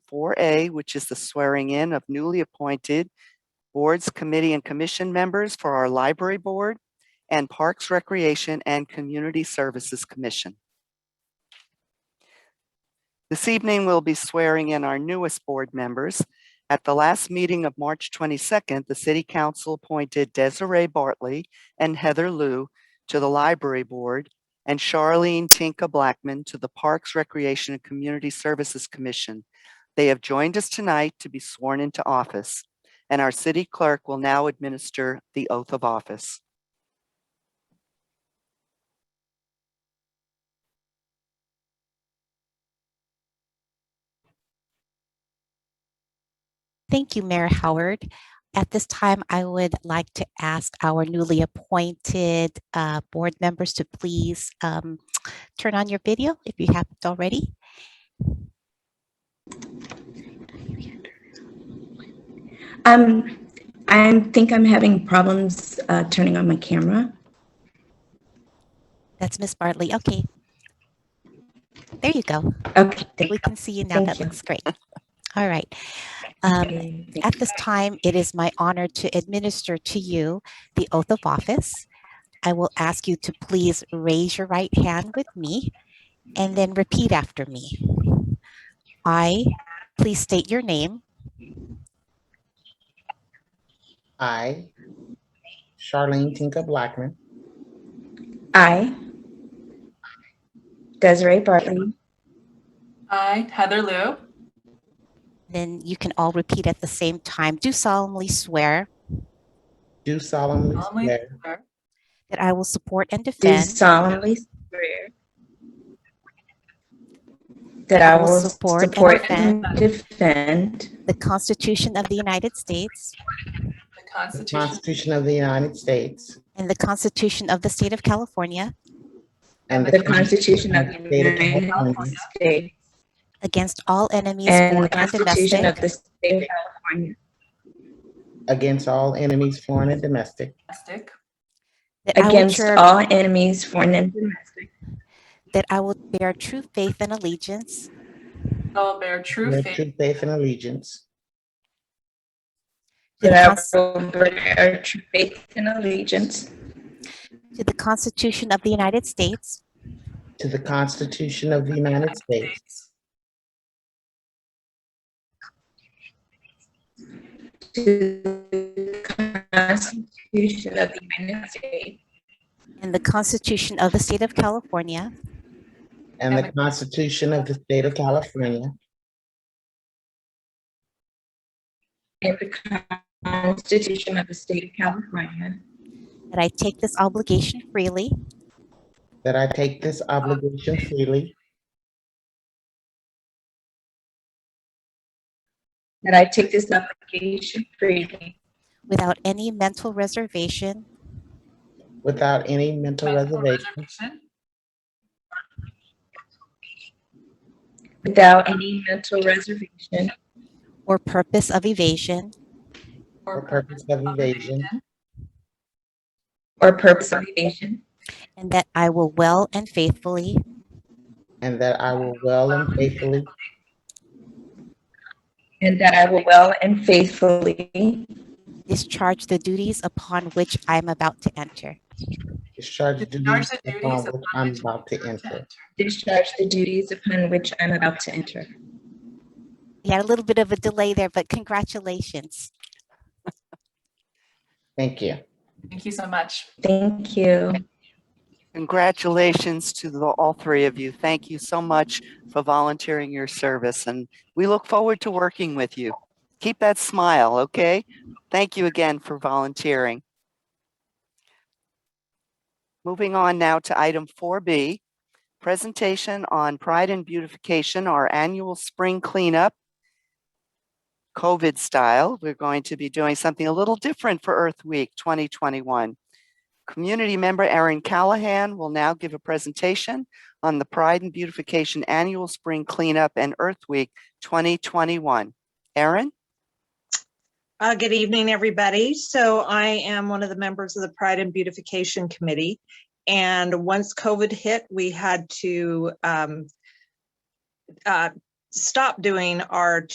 4A, which is the swearing in of newly appointed boards, committee, and commission members for our library board and Parks, Recreation, and Community Services Commission. This evening, we'll be swearing in our newest board members. At the last meeting of March 22nd, the city council appointed Desiree Bartley and Heather Lou to the library board and Charlene Tinka Blackman to the Parks, Recreation, and Community Services Commission. They have joined us tonight to be sworn into office, and our city clerk will now administer the oath of office. Thank you, Mayor Howard. At this time, I would like to ask our newly appointed uh, board members to please um, turn on your video if you haven't already. Um, I think I'm having problems uh, turning on my camera. That's Miss Bartley. Okay. There you go. Okay, thank We can see you now. Thank That you. looks great. All right. Um, you. At this time, it is my honor to administer to you the oath of office. I will ask you to please raise your right hand with me and then repeat after me. I, please state your name, I, Charlene Tinka Blackman, I, Desiree Bartley, I, Heather Lou, then you can all repeat at the same time. Do solemnly swear do solemnly Solemnly swear swear that I will support and do defend solemnly swear that I will support and support and defend the Constitution of the United States the the Constitution Constitution of the United States and the Constitution of the State of California and the Constitution of the United California States against all enemies, and the foreign and Constitution of domestic, the State of California, against all enemies, foreign and domestic, domestic, that I will against bear- all enemies, foreign and domestic, that I will bear true faith and allegiance I will bear true with faith true faith and allegiance to the that cons- I will bear true faith and allegiance to the Constitution of the United States to the Constitution of the of United the United States States, To the Constitution of the United States and the Constitution of the State of California, and the and Constitution of the State of California and the Constitution of the State of California, that I take this obligation freely that I take this obligation freely that I take this obligation freely without any mental reservation without any mental mental reservation reservation, without any mental reservation or purpose of evasion, or purpose of evasion, or purpose of evasion, and that I will well and faithfully and that I will well and faithfully and that I will well and faithfully discharge the duties upon which I am about to enter. discharge the Discharge duties the upon duties which upon I'm which about to I am enter. discharge the duties upon which I'm about to enter. You had a little bit of a delay there, but congratulations. Thank you. Thank you so much. Thank you. Congratulations to the, all three of you. Thank you so much for volunteering your service, and we look forward to working with you. Keep that smile, okay? Thank you again for volunteering. Moving on now to item 4B, presentation on Pride and Beautification, our annual spring cleanup. COVID style, we're going to be doing something a little different for Earth Week 2021. Community member Erin Callahan will now give a presentation on the Pride and Beautification Annual Spring Cleanup and Earth Week 2021. Erin? Uh, good evening, everybody. So I am one of the members of the Pride and Beautification Committee. And once COVID hit, we had to um, uh, stop doing our